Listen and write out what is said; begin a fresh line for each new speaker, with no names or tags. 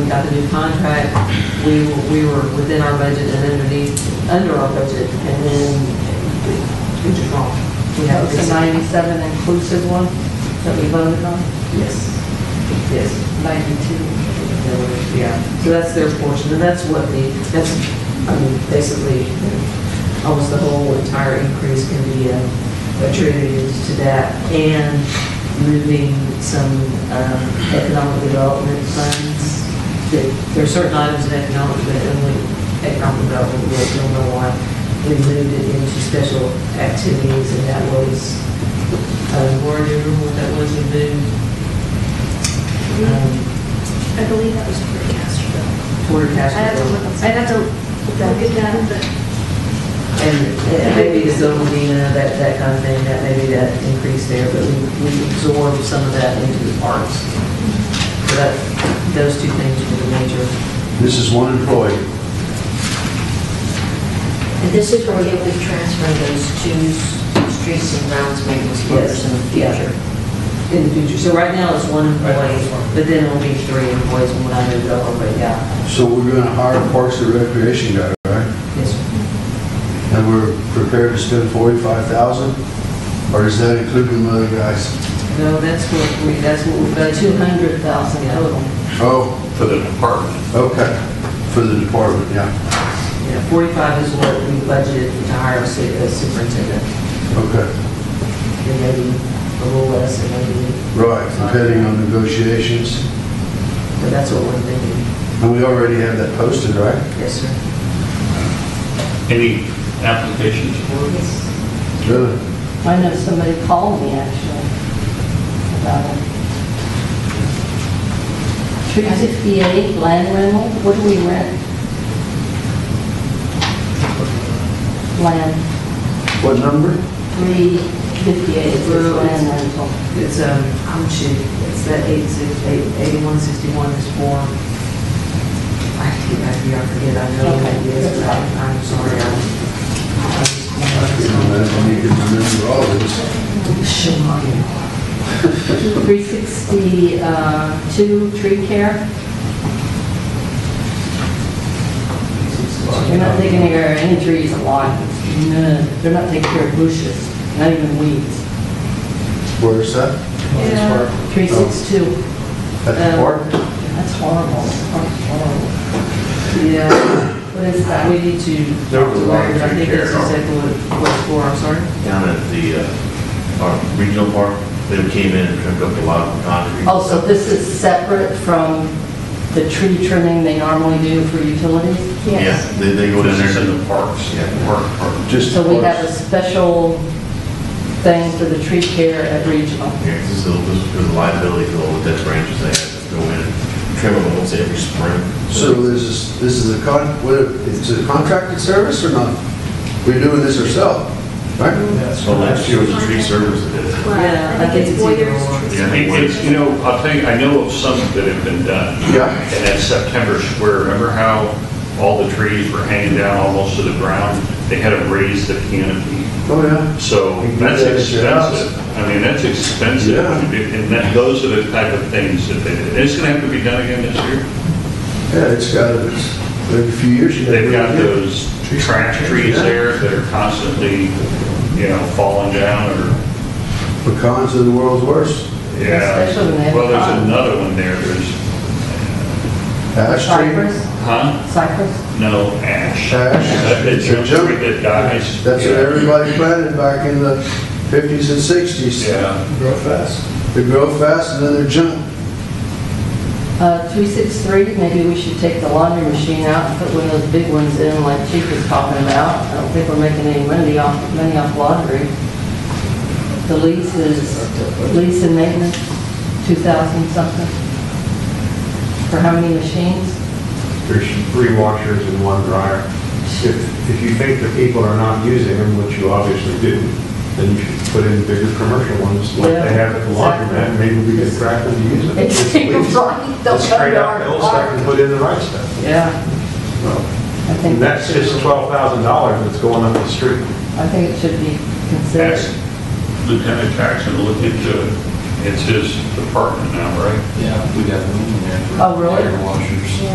got the new contract, we, were- we were within our budget and underneath, under our budget, and then it was just wrong. We have
That's the
a
ninety-seven inclusive one that we voted on?
Yes. Yes.
Ninety-two.
Yeah, so that's their portion, and that's what the, that's, I mean, basically, almost the whole entire increase can be uh, attributed to that, and moving some um, economic development funds. There- There are certain items in economic development, economic development, we don't know why, we moved it into special activities, and that was, uh, Laura, do you remember what that was, we moved? um,
I believe that was Portcaster.
Porter
I'd
Cash.
have to look, I'd have to look at that, but
And and maybe the Zildjian, that, that kind of thing, that maybe that increase there, but we, we absorb some of that into the parks. So that, those two things were the major.
This is one employee.
And this is where you'll be transferring those two streets and grounds maintenance workers in the
Yes, yeah.
future.
In the future, so right now it's one employee, but then it'll be three employees when I move over, but yeah.
So we're going to hire a Parks and Recreation guy, right?
Yes.
And we're prepared to spend 45,000? Or is that including the other guys?
No, that's what we, that's what we've got, two hundred thousand total.
Oh,
for the department.
okay, for the department, yeah,
Yeah, forty-five is what we budgeted to hire a su- a superintendent,
okay.
and maybe a little less, and maybe,
Right, depending on negotiations.
but that's what we're thinking.
And we already have that posted, right?
Yes, sir.
Any applications for it?
Really?
I know somebody called me actually about it. Three sixty-eight land rental, what do we rent? Land,
What number?
three fifty-eight is land rental.
It's, um, I'm shooting, it's that eight six, eight, eighty-one sixty-one is for, I keep, I forget, I forget, I know what it is, but I- I'm sorry, I'm. I just-
You know, that's when you can remember all of this.
Shemaya.
Three sixty-two, tree care, they're not taking care of any trees alive, none, they're not taking care of bushes, not even weeds.
Where's that? Oh,
Yeah.
Three six two,
At the park?
that's horrible, that's horrible.
Yeah,
What is
uh,
that?
we need to.
There was a lot of
I think
tree
that's
care.
exactly what, what it's for, I'm sorry.
Down at the, uh, our regional park, they came in and trimmed up a lot of concrete.
Oh, so this is separate from the tree trimming they normally do for utilities?
Yeah,
yes.
they, they go down there to the parks, yeah, park, park.
Just
Um, So we have
parks.
a special thing for the tree care at regional.
Yeah, this is, this is the liability for all the dead branches they have to go in and trim them once every spring.
So this is, this is a con, what, it's a contracted service or not? We're doing this ourselves, right?
So last year was a tree service that did it.
Well,
Yeah, I think it's either
Boyer's
or.
Tree
Yeah, I think
Service.
It's, you know, I'll tell you, I know of some that have been done.
Yeah.
And at September Square, remember how all the trees were hanging down almost to the ground? They had to raise the canopy.
Oh, yeah.
So
You can do
that's
that at your house.
expensive. I mean, that's expensive.
Yeah.
And that, those are the type of things that they, did. it's gonna have to be done again this year.
Yeah, it's got, it's, every few years you gotta.
They've
do it
got
again.
those trash trees
Yeah.
there that are constantly, you know, falling down or,
Pecans are the world's worst.
yeah.
Especially when they have
Well,
cotton.
there's another one there, there's,
Ash tree,
Cypress,
huh?
cypress,
No, ash.
Ash.
That big
It's a
junk
junk.
tree that dies.
that's what everybody planted back in the fifties and sixties.
Yeah.
Grow fast. They grow fast and then they're junk.
uh, three six three, maybe we should take the laundry machine out and put one of those big ones in like Chief was talking about. I don't think we're making any money off, money off laundry. The lease is, lease and maintenance, two thousand something. For how many machines?
There's three washers and one dryer. If, if you think that people are not using them, which you obviously do, then you should put in bigger commercial ones like they have at the laundromat. Maybe we can attract them to use them.
It's
right. They'll trade out the old stuff and put in the right stuff.
Yeah. I think.
And that's just twelve thousand dollars that's going up the street.
I think it should be considered.
Ask Lieutenant Jackson to look into it.
It's his department now, right?
Yeah, we got room in there for
Oh, really?
washers.